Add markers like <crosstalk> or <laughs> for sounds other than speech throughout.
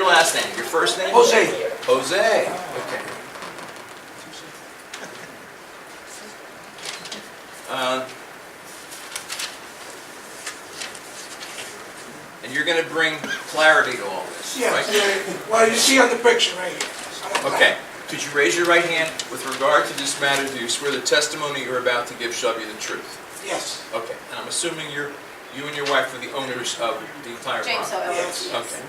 last name, your first name? Jose. Jose, okay. Uh, And you're gonna bring clarity to all this, Yeah, right? yeah, well, you see on the picture right here. Okay, could you raise your right hand? With regard to this matter, do you swear the testimony you're about to give shall be the truth? Yes, Okay, and I'm assuming you're, you and your wife are the owners of the entire property? James Yes. O. Okay.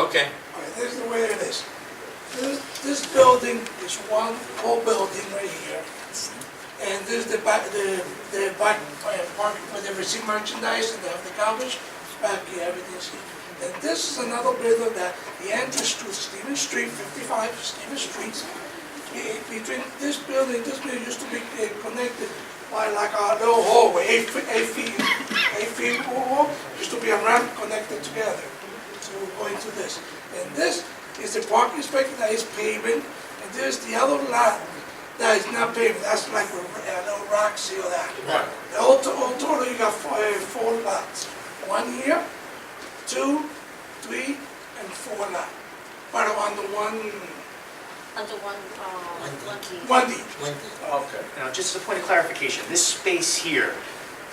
Okay, all right, this is the way it is. This, this building is one whole building right here. And this is the back, the, the back uh, parking where they receive merchandise and they have the garbage, back here, everything's here. And this is another building that, the entrance to Stevens Street, fifty-five Stevens Street. Be- Between this building, this building used to be uh, connected by like a little hallway, eight feet, eight feet, eight feet wall, used to be a ramp connected together. So we're going to this. And this is the parking space that is paving, and there's the other lot that is not paved, that's like a a little rock seal that. Right. The whole to- whole total, you got four, uh, four lots. One here, two, three, and four lot. But on the one, Under one, uh, one key. one deed. okay. Now, just a point of clarification, this space here,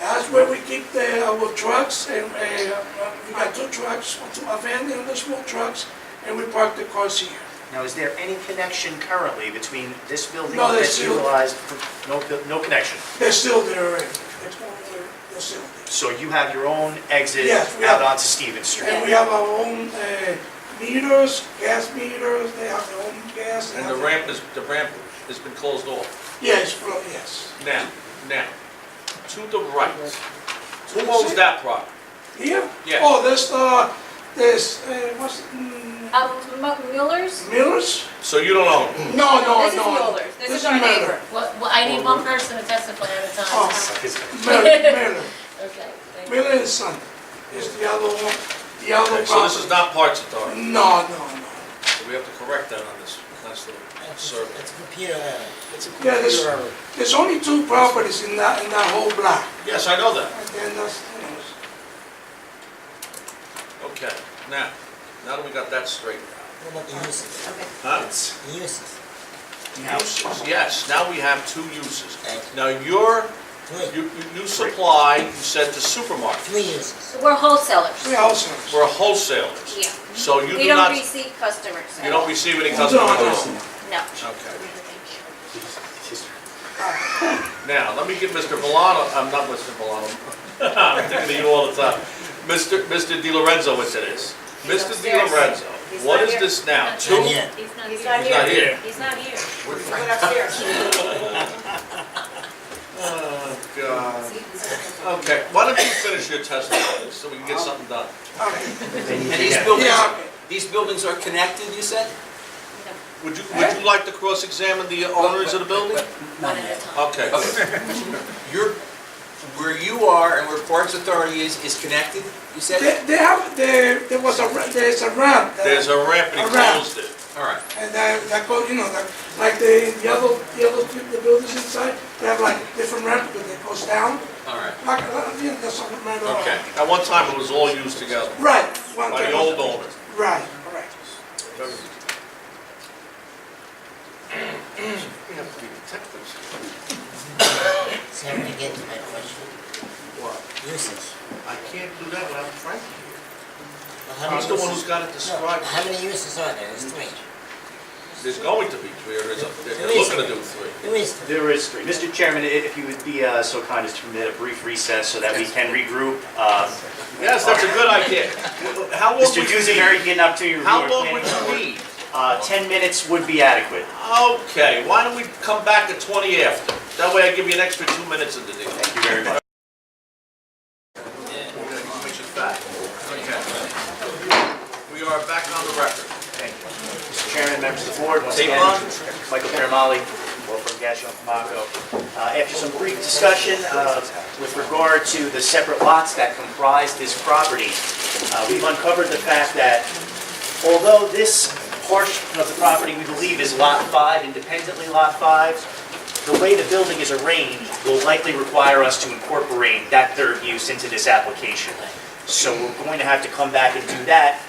That's where we keep the, our trucks, and, uh, uh, we got two trucks, two a van and the small trucks, and we park the cars here. now, is there any connection currently between this building No, there's that's no- utilized? for- No, bu- no connection. They're still there, uh, they're, they're still there. So you have your own exit Yes, we have- out onto Stevens Street? And we have our own uh, meters, gas meters, they have their own gas. they And have the their- ramp is, the ramp has been closed off. Yes, well, yes. Now, now, to the right, who owns that property? Here? Yeah. Oh, this, uh, this, uh, what's, mm, Um, Mu- Mueller's? Miller's? So you don't own it? No, no, This is no. Mueller's, this is our Miller. neighbor. Well, well, I need one person to testify at a Oh. time. Miller, Miller, Okay, thank you. Miller and Son is the other one, the other So this is property. not Parks Authority, No, no, no. so we have to correct that on this, that's the survey. It's a computer error. It's a Yeah, computer there's, error. there's only two properties in that, in that whole block. Yes, I know that. And then that's, you know, Okay, now, now that we got that straight, What about the uses? Okay. huh? The uses, Now, Yes, now we have two uses. Thank Now, your, three, you you- you supply, you said to supermarket, three uses. We're wholesalers. three houses. we're wholesalers. Yeah. So you We do don't not, receive customers. you don't receive any No, customer no. calls. No. Okay. Thank you. Now, let me give Mr. Valano, I'm not Mr. Valano, <laughs> I'm thinking of you all the time. Mr. Mr. Di Lorenzo, what it is. He's Mr. Di upstairs. Lorenzo, He's what not is here. this now? He's Two? not Not yet. He's not He's not here. here. He's not <laughs> here. We're- He went upstairs. Oh, God. Okay, why don't you finish your testimony so we can get something done? Okay, And these yeah, buildings, okay. these buildings are connected, you said? Would you, would you like to cross-examine the owners of the building? No, One at a time. Okay. Okay. You're, where you are and where Parks Authority is, is connected, you said? They, they have, there, there was a, ra- there's a ramp. that- There's a ramp and he A ramp. closed it. All right. And that, that goes, you know, that, like the, the other, the other, two- the buildings inside, they have like different ramp that they goes down. All right. Like, uh, you know, that's something right around. Okay, at one time it was all used together Right. one by the thing. old owner. Right, right. We have to be detectives. So I'm gonna get to my question. What? Uses. I can't do that without Frank here. Well, how many He's the one who's uses- got it No, described. How many uses are there? There's three. There's going to be three, or there's, a- they're looking to do three. There is three. there is three. Mr. Chairman, i- if you would be uh, so kind as to permit a brief recess so that we can regroup. uh, Yes, that's a good idea. How long would Mr. you Dusenberry need? get an opportunity to review How our long would planning you board. need? Uh, 10 minutes would be adequate. Okay, why don't we come back at twenty after? That way I give you an extra two minutes of the deal. Thank you very much. Which is back. Okay. We are back on the record. Mr. Chairman, members of the board, once Tape again, on? Michael Paramali, Law Firm Gassion Pomaco. Uh, After some brief discussion uh, with regard to the separate lots that comprise this property, uh, we've uncovered the fact that although this portion of the property we believe is Lot 5, independently Lot 5, the way the building is arranged will likely require us to incorporate that third use into this application. So we're going to have to come back and do that